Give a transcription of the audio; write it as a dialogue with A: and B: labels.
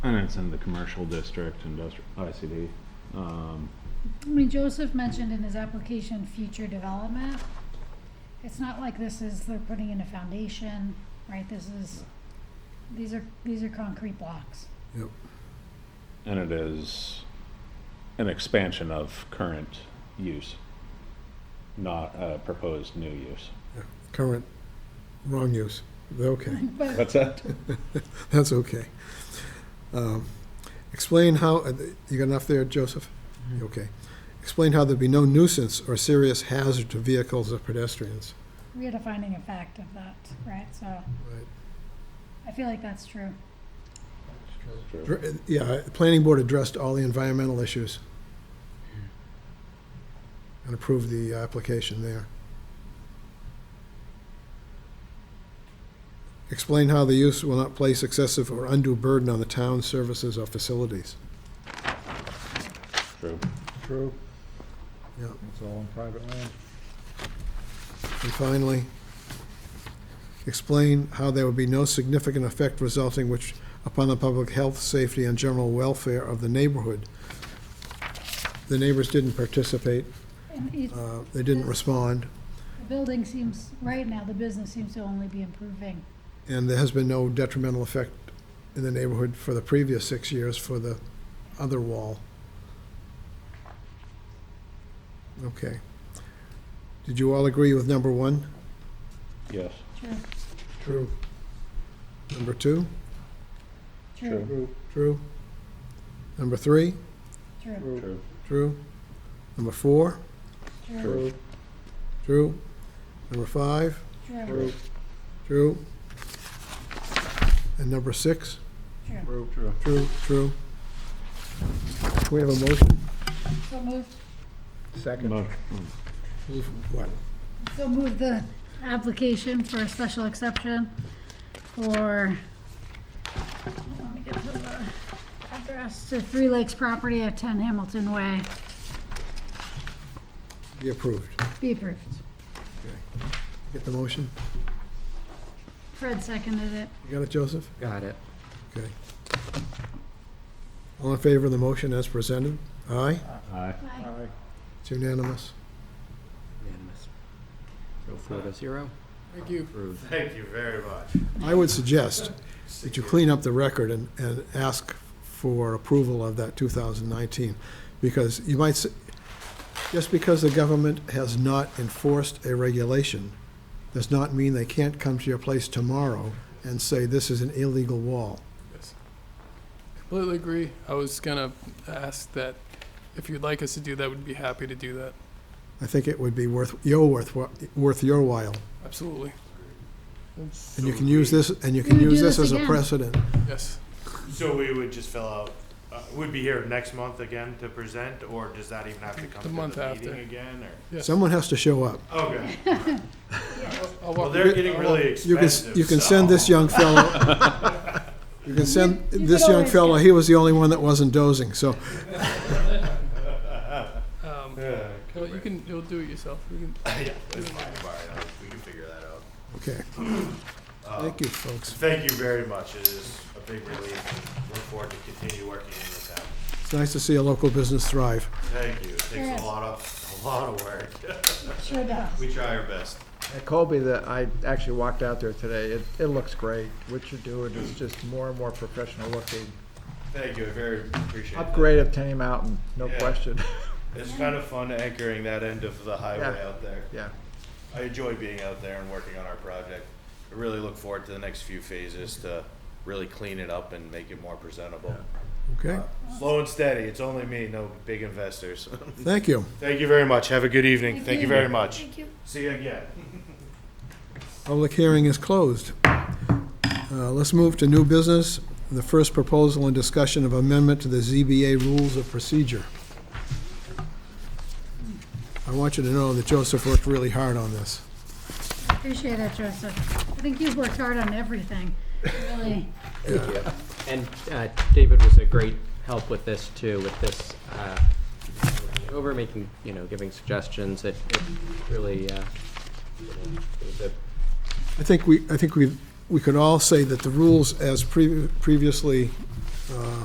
A: And it's in the commercial district, industrial, ICD. Um,
B: I mean, Joseph mentioned in his application future development. It's not like this is, they're putting in a foundation, right? This is, these are, these are concrete blocks.
C: Yep.
A: and it is an expansion of current use, not a proposed new use.
C: yeah. Current, wrong use. Okay,
B: But,
A: What's that?
C: that's okay. Um, Explain how, uh, you got enough there, Joseph? Okay. Explain how there'd be no nuisance or serious hazard to vehicles or pedestrians.
B: we had a finding of fact of that, right? So
C: Right.
B: I feel like that's true.
A: True.
C: Dr- uh, Yeah, the planning board addressed all the environmental issues and approved the application there. Explain how the use will not place excessive or undue burden on the town's services or facilities.
A: True.
D: True,
C: Yeah,
D: it's all on private land.
C: and finally, explain how there would be no significant effect resulting which upon the public health, safety, and general welfare of the neighborhood. The neighbors didn't participate,
B: And each,
C: uh, they didn't respond.
B: the building seems, right now, the business seems to only be improving.
C: And there has been no detrimental effect in the neighborhood for the previous six years for the other wall. Okay. Did you all agree with number one?
A: Yes.
B: True,
C: True. Number two?
B: true,
A: True.
C: True. Number three?
B: true,
A: True.
C: True. Number four?
B: true,
C: True. Number five?
B: true,
C: True. And number six?
B: true.
A: True.
C: True, true. We have a motion?
B: So move,
D: Second.
C: What?
B: so move the application for a special exception for, let me get to the address, to Three Lakes property at 10 Hamilton Way,
C: Be approved.
B: be approved.
C: Get the motion?
B: Fred seconded it.
C: You got it, Joseph?
E: Got it.
C: Okay. All in favor of the motion as presented? Aye?
A: Aye.
B: Aye.
D: Aye.
C: It's unanimous.
E: Unanimous. So four to zero. Thank you. Approved.
F: Thank you very much.
C: I would suggest that you clean up the record and, and ask for approval of that 2019, because you might, s- just because the government has not enforced a regulation, does not mean they can't come to your place tomorrow and say, this is an illegal wall.
G: Completely agree. I was gonna ask that if you'd like us to do that, we'd be happy to do that.
C: I think it would be worth, your worth, worth your while.
G: Absolutely.
C: And you can use this, and you
B: We
C: can
B: would
C: use
B: do
C: this
B: this
C: as a
B: again.
C: precedent.
G: Yes.
F: So we would just fill out, uh, we'd be here next month again to present, or does that even have to come
G: The
F: to
G: month
F: the meeting
G: after.
F: again,
G: Yes.
C: Someone has to show up.
F: or? Okay,
G: I'll walk
F: well,
G: you-
F: they're getting
G: I'll
F: really
C: You can,
F: expensive,
C: you can send this young fellow, you can send
B: You- you
C: this
B: could
C: young
B: always
C: fellow,
B: get-
C: he was the only one that wasn't dozing, so
G: walk- Um, no, you can. You'll do it yourself. We can,
F: Yeah, it's fine, all right, we can figure that out.
C: Okay.
F: Uh,
C: Thank you, folks.
F: Thank you very much, it is a big relief, look forward to continue working in the town.
C: It's nice to see a local business thrive.
F: Thank you, it
B: Yes.
F: takes a lot of, a lot of work,
B: Sure does.
F: we try our best.
D: At Colby, that I actually walked out there today, it, it looks great. What you're doing is just more and more professional looking.
F: Thank you, I very appreciate that.
D: Upgrade of Tenny Mountain, no
F: Yeah.
D: question.
F: It's kind of fun anchoring that end of the highway
D: Yeah.
F: out there.
D: Yeah.
F: I enjoy being out there and working on our project. I really look forward to the next few phases to really clean it up and make it more presentable.
C: Okay?
F: Uh, Slow and steady, it's only me, no big investors.
C: Thank you.
F: Thank you very much, have a good evening,
B: Thank
F: thank you
B: you.
F: very much.
B: Thank you.
F: See you again.
C: Public hearing is closed. Uh, Let's move to new business, the first proposal and discussion of amendment to the ZBA rules of procedure. I want you to know that Joseph worked really hard on this.
B: Appreciate that, Joseph. I think you've worked hard on everything, really.
E: Thank you. And uh, David was a great help with this too, with this uh, over making, you know, giving suggestions. It it really, uh, you know, it was a-
C: I think we, I think we've, we could all say that the rules as previ- previously uh,